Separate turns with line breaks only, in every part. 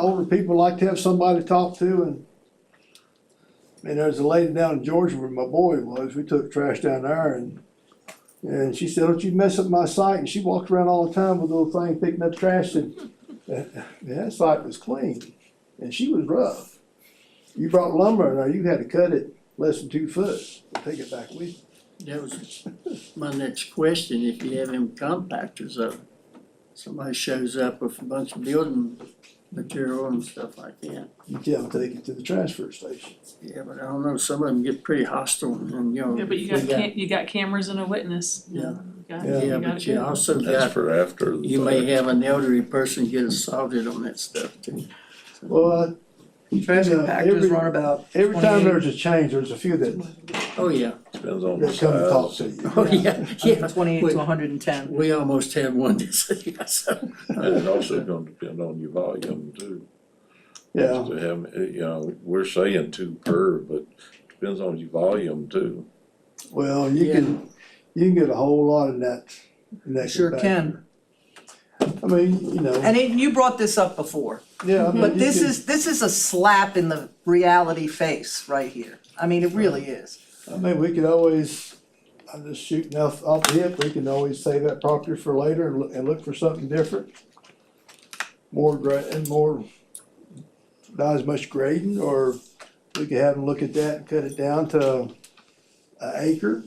older people like to have somebody to talk to and. And there's a lady down in Georgia where my boy was, we took trash down there and. And she said, don't you mess up my site, and she walked around all the time with a little thing picking up trash and. And that site was clean, and she was rough. You brought lumber in there, you had to cut it less than two foot, to take it back with you.
That was my next question, if you have them compactors up, somebody shows up with a bunch of building material and stuff like that.
You can't take it to the transfer station.
Yeah, but I don't know, some of them get pretty hostile and, you know.
Yeah, but you got cam- you got cameras and a witness.
Yeah.
You got-
Yeah.
Yeah,
you got
but
it
you
good.
also
That's
got,
for after the
you may
fact.
have an elderly person get assaulted on that stuff too.
Well,
Trash
Yeah, every-
compactors run about
every time
28.
there's a change, there's a few that,
Oh, yeah,
Depends on the
that come and talk
size.
to you.
oh, yeah, yeah,
twenty-eight to hundred and ten.
we almost had one this year, so.
And it also gonna depend on your volume too.
Yeah,
To have, uh, you know, we're saying two per, but depends on your volume too.
well, you can, you can get a whole lot in that, in that.
Sure
compactor. I mean, you know,
And it, you brought this up before,
yeah, I mean,
but
Mm-hmm. you
this
can-
is, this is a slap in the reality face right here. I mean, it really is.
I mean, we could always, I'm just shooting off, off the hip, we can always save that property for later and look, and look for something different. More gra- and more, not as much grading, or we could have them look at that and cut it down to an acre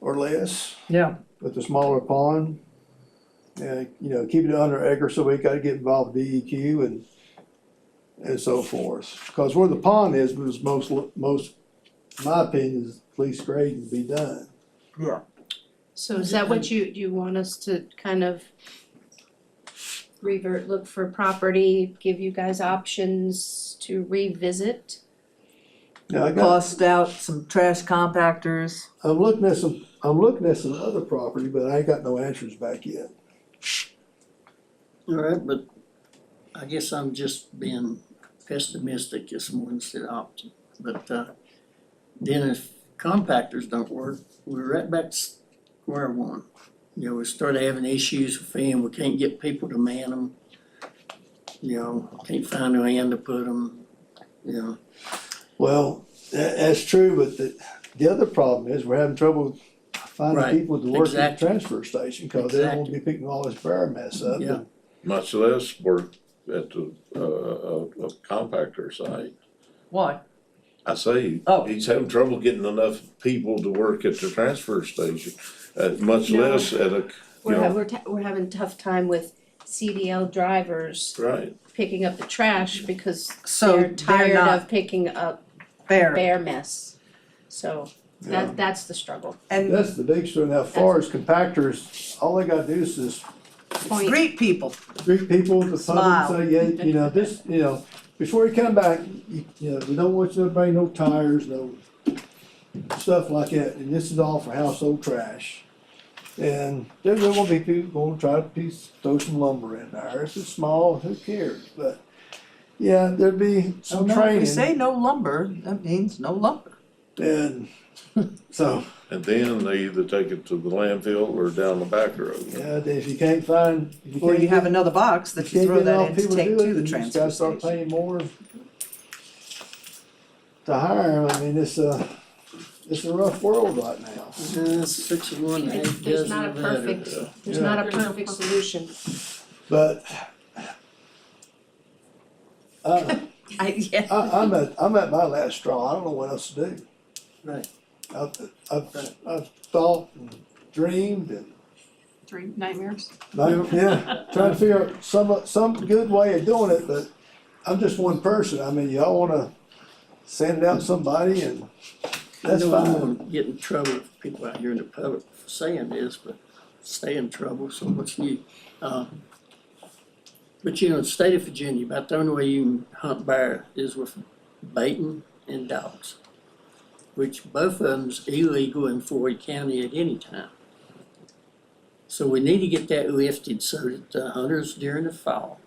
or less
Yeah.
with a smaller pond. And, you know, keep it under acre, so we gotta get involved with DEQ and, and so forth. Cause where the pond is, was most, most, my opinion is least grading to be done.
Yeah.
So is that what you, you want us to kind of revert, look for property, give you guys options to revisit?
Now, I got,
Bust out some trash compactors.
I'm looking at some, I'm looking at some other property, but I ain't got no answers back yet.
All right, but I guess I'm just being pessimistic this morning instead of optimistic. But uh, then if compactors don't work, we're right back to square one. You know, we start having issues with them, we can't get people to man them. You know, can't find a hand to put them, you know.
Well, tha- that's true, but the, the other problem is we're having trouble
Right,
finding people to work at the
exactly.
transfer station, cause they won't be picking all this bear mess up.
Yeah.
Much less work at the, uh, uh, uh, compactor site.
Why?
I say,
Oh.
he's having trouble getting enough people to work at the transfer station, uh, much
No.
less at a, you
We're, ha-
know,
we're, ta- we're having tough time with CDL drivers
right.
picking up the trash because
So
they're
they're
tired
not
of picking up
fair.
bear mess. So
Yeah.
that, that's the struggle.
And
That's the big story now, far as compactors, all they gotta do is just
Point.
greet people.
greet people at the pump
Smile.
and say, yeah, you know, this, you know, before you come back, you, you know, we don't want you to bring no tires, no stuff like that, and this is all for household trash. And there's gonna be people gonna try to piece, throw some lumber in there, if it's small, who cares, but, yeah, there'd be
So
some
no, if we
training,
say no lumber, that means no lumber.
and, so,
And then they either take it to the landfill or down the back road.
yeah, if you can't find, if you
Or
can't
you
get
have another box that you throw that in to take to the
You just
transfer
gotta start
station.
paying more to hire 'em. I mean, it's a, it's a rough world right now.
Uh, Six of one, eight
There's-
dozen
There's not a
of that. uh,
perfect,
yeah.
there's
Yeah.
not a
There's no
perfect
perfect-
solution.
But I,
I, yeah.
I, I'm at, I'm at my last straw. I don't know what else to do.
Right.
I've, I've, I've thought and dreamed and,
Three nightmares.
like, yeah, trying to figure out some, some good way of doing it, but I'm just one person. I mean, y'all wanna send out somebody and
I
that's
know I'm
fine.
gonna get in trouble with people out here in the public for saying this, but stay in trouble, so what's new? Uh, But you know, the state of Virginia, about the only way you can hunt bear is with baiting and dogs. Which both of them's illegal in Floyd County at any time. So we need to get that lifted so that the hunters during the fall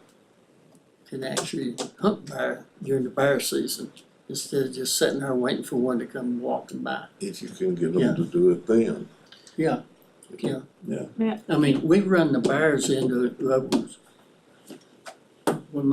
can actually hunt bear during the bear season instead of just sitting there waiting for one to come walking by.
If you can get them
Yeah.
to do it then.
Yeah, yeah.
Yeah.
Yeah.
I mean, we run the bars into levels